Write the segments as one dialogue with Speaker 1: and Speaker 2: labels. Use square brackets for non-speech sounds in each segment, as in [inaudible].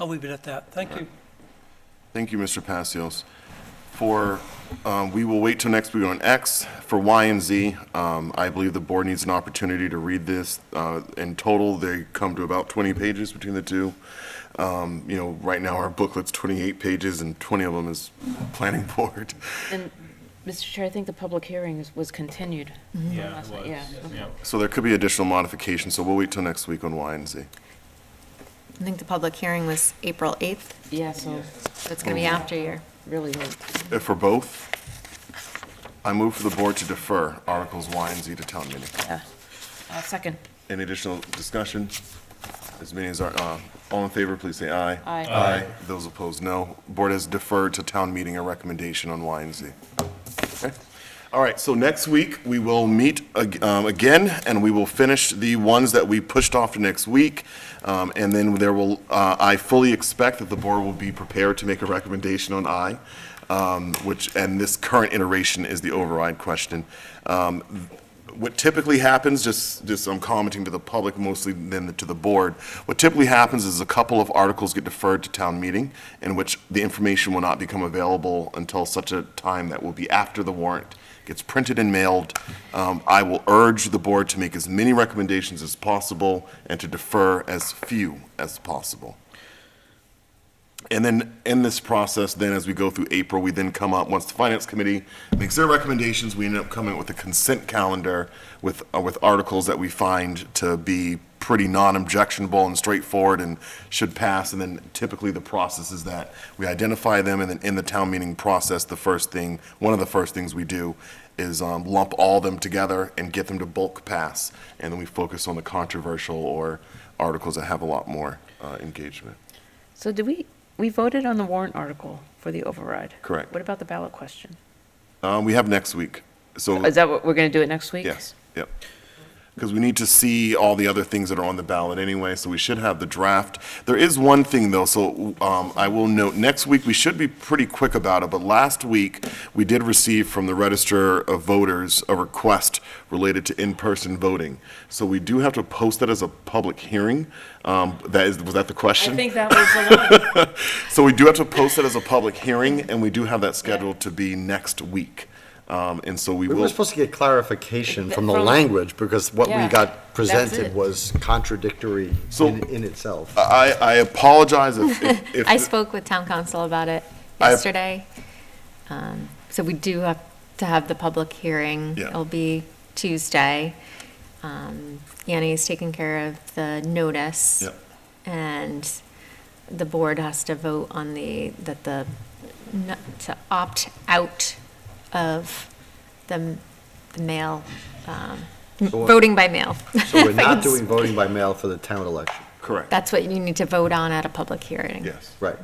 Speaker 1: I'll leave it at that. Thank you.
Speaker 2: Thank you, Mr. Passios. For, um, we will wait till next week on X. For Y and Z, um, I believe the board needs an opportunity to read this. Uh, In total, they come to about 20 pages between the two. Um, You know, right now, our booklet's 28 pages, and 20 of them is planning [laughs] board.
Speaker 3: And, Mr. Chair, I think the public hearing is- was continued. from
Speaker 4: Yeah,
Speaker 3: last
Speaker 4: it
Speaker 3: night.
Speaker 4: was.
Speaker 3: Yeah, okay.
Speaker 4: Yeah.
Speaker 2: So there could be additional modifications, so we'll wait till next week on Y and Z.
Speaker 5: I think the public hearing was April 8th,
Speaker 3: Yeah, so
Speaker 5: so it's
Speaker 6: Mm-hmm.
Speaker 5: going to be after your,
Speaker 3: really, late.
Speaker 2: Uh, For both, I move for the board to defer Articles Y and Z to town meeting.
Speaker 3: yeah. Uh, Second.
Speaker 2: Any additional discussion? As many as are, uh, all in favor, please say aye.
Speaker 3: Aye.
Speaker 2: Aye. Those opposed, no. Board has deferred to town meeting a recommendation on Y and Z. Okay. All right, so next week, we will meet ag- um, again, and we will finish the ones that we pushed off to next week. Um, And then there will, uh, I fully expect that the board will be prepared to make a recommendation on I, um, which, and this current iteration is the override question. Um, what typically happens, just, just I'm commenting to the public mostly than to the board, what typically happens is a couple of articles get deferred to town meeting, in which the information will not become available until such a time that will be after the warrant gets printed and mailed. Um, I will urge the board to make as many recommendations as possible and to defer as few as possible. And then in this process, then as we go through April, we then come up, once the finance committee makes their recommendations, we end up coming up with a consent calendar with, uh, with articles that we find to be pretty non-objectionable and straightforward and should pass. And then typically the process is that we identify them and then in the town meeting process, the first thing, one of the first things we do is um, lump all them together and get them to bulk pass. And then we focus on the controversial or articles that have a lot more uh, engagement.
Speaker 3: So did we, we voted on the warrant article for the override?
Speaker 2: Correct.
Speaker 3: What about the ballot question?
Speaker 2: Um, we have next week, so,
Speaker 3: Is that what, we're going to do it next week?
Speaker 2: yes, yep. Because we need to see all the other things that are on the ballot anyway, so we should have the draft. There is one thing, though, so, um, I will note, next week, we should be pretty quick about it, but last week, we did receive from the Register of Voters a request related to in-person voting. So we do have to post that as a public hearing. Um, that is, was that the
Speaker 3: I
Speaker 2: question?
Speaker 3: think that was the one.
Speaker 2: So we do have to post it as a public hearing, and we do have that scheduled to be next week. Um, and so we
Speaker 6: We
Speaker 2: will.
Speaker 6: were supposed to get clarification from the
Speaker 3: From-
Speaker 6: language, because what we
Speaker 3: Yeah,
Speaker 6: got
Speaker 3: it.
Speaker 6: presented was contradictory
Speaker 2: So-
Speaker 6: in in itself.
Speaker 2: I, I apologize if,
Speaker 5: [laughs]
Speaker 2: if- if.
Speaker 5: I spoke with town council about it
Speaker 2: I-
Speaker 5: yesterday. Um, So we do have to have the public hearing.
Speaker 2: Yeah.
Speaker 5: It'll be Tuesday. Um, Annie's taking care of the notice.
Speaker 2: Yep.
Speaker 5: And the board has to vote on the, that the, n- to opt out of the the mail, um,
Speaker 6: So-
Speaker 5: voting by mail.
Speaker 6: So we're
Speaker 5: [laughs] If I can
Speaker 6: not
Speaker 5: s-
Speaker 6: doing voting by mail for the town election.
Speaker 2: Correct,
Speaker 5: That's what you need to vote on at a public hearing.
Speaker 2: yes.
Speaker 6: Right.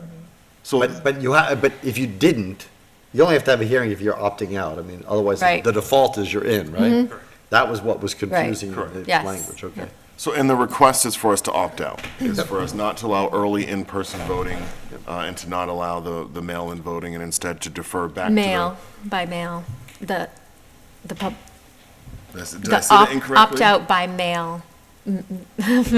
Speaker 2: So,
Speaker 6: But, but you have, but if you didn't, you only have to have a hearing if you're opting out. I mean, otherwise,
Speaker 5: Right.
Speaker 6: the default is you're in, right? That was what was confusing in
Speaker 2: Correct.
Speaker 6: the
Speaker 5: Yes.
Speaker 6: language, okay.
Speaker 2: so, and the request is for us to opt out, is for us not to allow early in-person voting, uh, and to not allow the, the mail-in voting, and instead to defer back to the.
Speaker 5: Mail, by mail, the, the pub,
Speaker 2: Did I say- did I
Speaker 5: the
Speaker 2: say that
Speaker 5: op-
Speaker 2: incorrectly?
Speaker 5: opt-out
Speaker 2: [laughs]
Speaker 5: by mail.
Speaker 6: Opt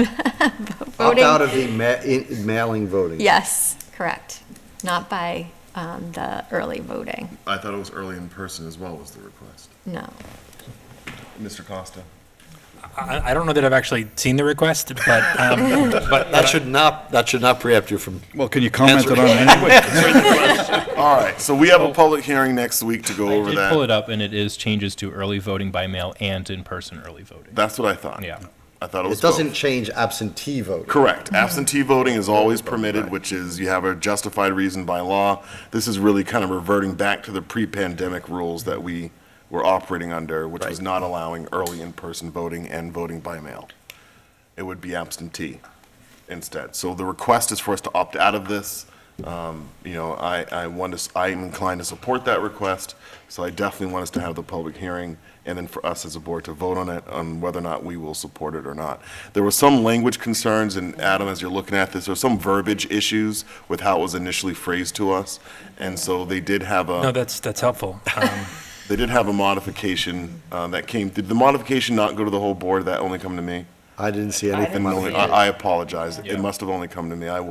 Speaker 5: Voting-
Speaker 6: out of the ma- in- mailing voting.
Speaker 5: Yes, correct. Not by um, the early voting,
Speaker 2: I thought it was early in-person as well was the request.
Speaker 5: no.
Speaker 2: Mr. Costa?
Speaker 4: I, I don't know that I've actually seen the request, but, um, but
Speaker 6: That should not, that should not preempt you from
Speaker 7: Well, can you comment it on it anyway?
Speaker 2: All right, so we have a public hearing next week to go
Speaker 8: I
Speaker 2: over
Speaker 8: did pull
Speaker 2: that.
Speaker 8: it up, and it is changes to early voting by mail and in-person early voting.
Speaker 2: That's what I thought.
Speaker 8: Yeah.
Speaker 2: I thought it was
Speaker 6: It
Speaker 2: both.
Speaker 6: doesn't change absentee voting.
Speaker 2: Correct. Absentee voting is always permitted, which is you have a justified reason by law. This is really kind of reverting back to the pre-pandemic rules that we were operating under, which was not allowing early in-person voting and voting by mail. It would be absentee instead. So the request is for us to opt out of this. Um, You know, I, I want us, I'm inclined to support that request, so I definitely want us to have the public hearing, and then for us as a board to vote on it, on whether or not we will support it or not. There were some language concerns, and Adam, as you're looking at this, there were some verbiage issues with how it was initially phrased to us, and so they did have a.
Speaker 4: no, that's, that's helpful. Um,
Speaker 2: They did have a modification uh, that came, did the modification not go to the whole board, that only come to me?
Speaker 6: I didn't see anything.
Speaker 2: Then
Speaker 6: on
Speaker 2: only-
Speaker 6: it.
Speaker 2: I I apologize,
Speaker 8: Yeah.
Speaker 2: it must have only come to me, I